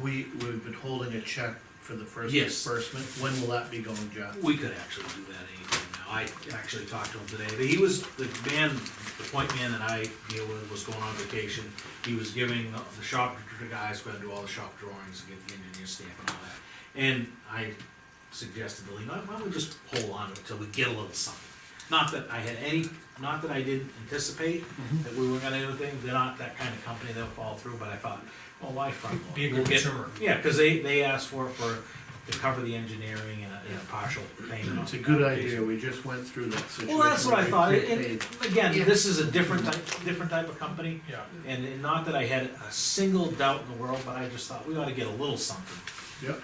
We, we've been holding a check for the first Yes. disbursement, when will that be going, John? We could actually do that anytime now. I actually talked to him today. He was, the man, the point man that I deal with was going on vacation. He was giving the shop, the guys who had to do all the shop drawings and get the engineer stamp and all that. And I suggested to Lee, why don't we just hold on to it till we get a little something? Not that I had any, not that I didn't anticipate Mm-hmm. that we were gonna do anything. They're not that kind of company, they'll fall through, but I thought, well, why front load? Be a We'll good get- consumer. yeah, because they, they asked for, for, to cover the engineering and a, and a partial payment. It's a good idea, we just went through that situation. Well, that's what I with thought, prepaid. and, and again, this is a different type, different type of company, Yeah, and, and not that I had a single doubt in the world, but I just thought we ought to get a little something. Yep,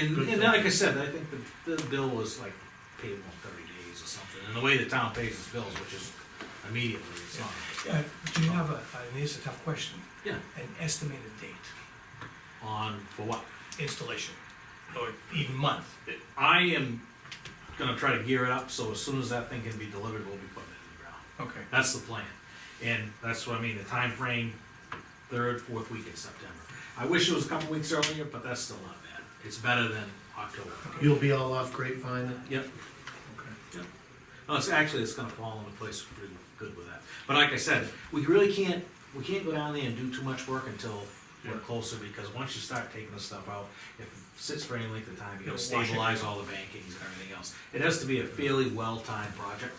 And, Good and thing. like I said, I think the, the bill was like payable in thirty days or something, and the way the town pays its bills, which is immediately, it's not, Uh, do you have a, and this is a tough question, yeah, an estimated date, on, for what? installation, or even month? I am gonna try to gear it up, so as soon as that thing can be delivered, we'll be putting it in the ground. Okay. That's the plan. And that's what I mean, the time frame, third, fourth week in September. I wish it was a couple weeks earlier, but that's still not bad. It's better than October. you'll be all off grapevine then? Yep. Okay. No, it's actually, it's gonna fall into place pretty good with that. But like I said, we really can't, we can't go down there and do too much work until we're Yeah. closer, because once you start taking this stuff out, if it sits for any length of time, you gotta It'll wash stabilize all the bankings and everything else. It has to be a fairly well-timed project,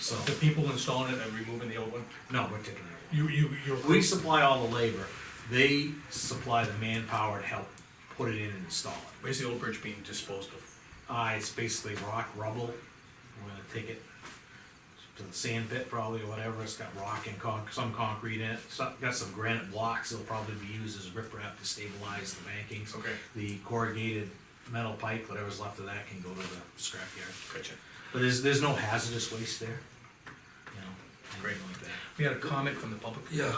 so, The people installing it and removing the old one, no, we're taking it. you, you, you're. We supply all the labor, they supply the manpower to help put it in and install it. Where's the old bridge being disposed of? Uh, it's basically rock, rubble, we're gonna take it to the sand pit probably or whatever, it's got rock and con, some concrete in it, so, got some granite blocks, that'll probably be used as riprap to stabilize the bankings. Okay. The corrugated metal pipe, whatever's left of that can go to the scrapyard, Gotcha. but there's, there's no hazardous waste there, you know, Great. anything like that. We had a comment from the public. Yeah,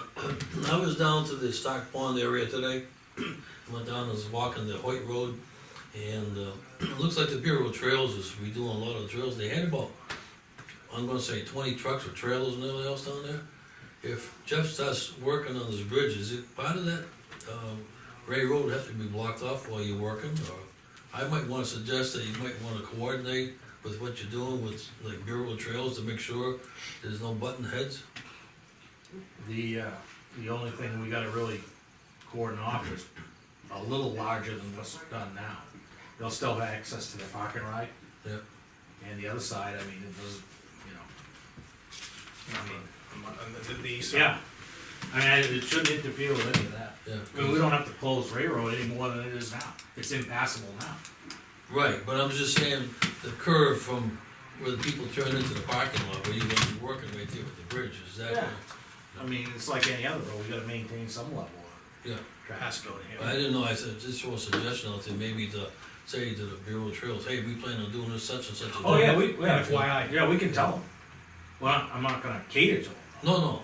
I was down to the Stock Pond area today, went down, and was walking the Hoyt Road, and, uh, it looks like the Bureau of Trails is redoing a lot of the trails, they had about, I'm gonna say twenty trucks with trailers and everything else down there. If Jeff starts working on this bridge, is it part of that, um, Ray Road have to be blocked off while you're working, or? I might wanna suggest that you might wanna coordinate with what you're doing with, like, Bureau of Trails to make sure there's no button heads. The, uh, the only thing we gotta really coordinate off is a little larger than what's done now. They'll still have access to their parking right, Yeah. and the other side, I mean, it doesn't, you know. I mean, On- on uh, the- the east side. yeah, I mean, it shouldn't interfere with any of that. Yeah. I mean, we don't have to close railroad any more than it is now, it's impassable now. Right, but I'm just saying, the curve from where the people turn into the parking lot, where you're gonna be working right there with the bridge, is that? Yeah. I mean, it's like any other road, we gotta maintain some level of Yeah, traffic. Has to go in here. I didn't know, I said, just throw a suggestion out there, maybe to say to the Bureau of Trails, hey, we plan on doing this such and such. a Oh, day." yeah, we, yeah, FYI. yeah, we can tell them. Well, I'm not gonna cater to them. No, no,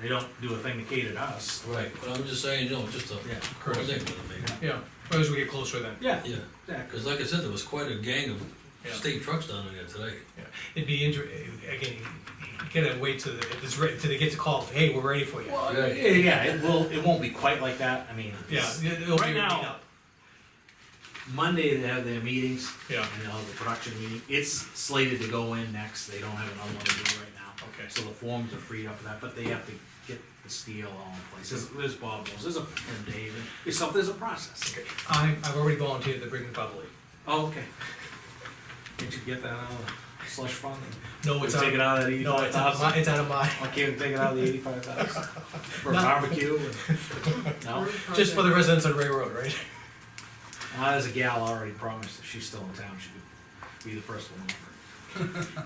They don't do a thing to cater to us. no, right, but I'm just saying, you know, just a, Yeah. thing with it maybe, Yeah, well, as we get closer then. Yeah, yeah, exactly. cause like I said, there was quite a gang of Yeah. state trucks down there today. Yeah. It'd be inter, uh, again, you gotta wait till the- it's ready, till they get the call, hey, we're ready for you. Well, Oh, yeah, yeah, it will, it won't be quite like that, I mean. Yeah, it's- it- it'll be. Right now- made up. Monday, they have their meetings. Yeah. And they'll have the production meeting, it's slated to go in next, they don't have another one to do right now. Okay. So the forms are freed up for that, but they have to get the steel all in place, there's, there's Bob Mills, there's a, and Dave, and yourself, there's a process. Okay. I, I've already volunteered to bring the E. bubble in. Oh, okay. Did you get that out of the slush fund? No, it's out. Take it out of that No, eighty-five it's out of thousand? my, it's out of my, I can't take it out of the eighty-five thousand for a No. barbecue. and- No, just for the residents on Ray Road, right? Uh, there's a gal already promised that she's still in town, she could be the first one. over.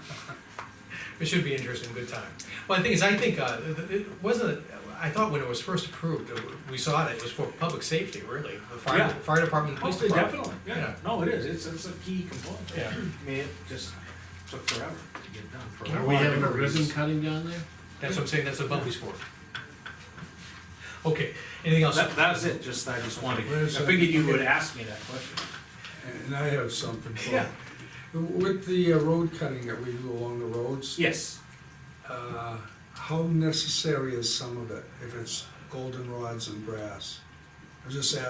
It should be interesting, good time. Well, the thing is, I think, uh, it- it wasn't, I thought when it was first approved, uh, we saw it, it was for public safety, really. The fire, Yeah. fire department, police department. Yeah, no, it is, it's, it's a key component. Yeah. I mean, it just took forever to get done for. Yeah, a We lot of having a different ribbon reasons. cutting down there? That's what I'm saying, that's what Bumblebee's for. Okay, anything else? That, that's it, just, I just wanted, I Wait a second. figured you would ask me that question. And I have something for you. Yeah. With the uh, road cutting that we do along the roads, Yes, uh, how necessary is some of it if it's goldenrods and grass? I'm just asking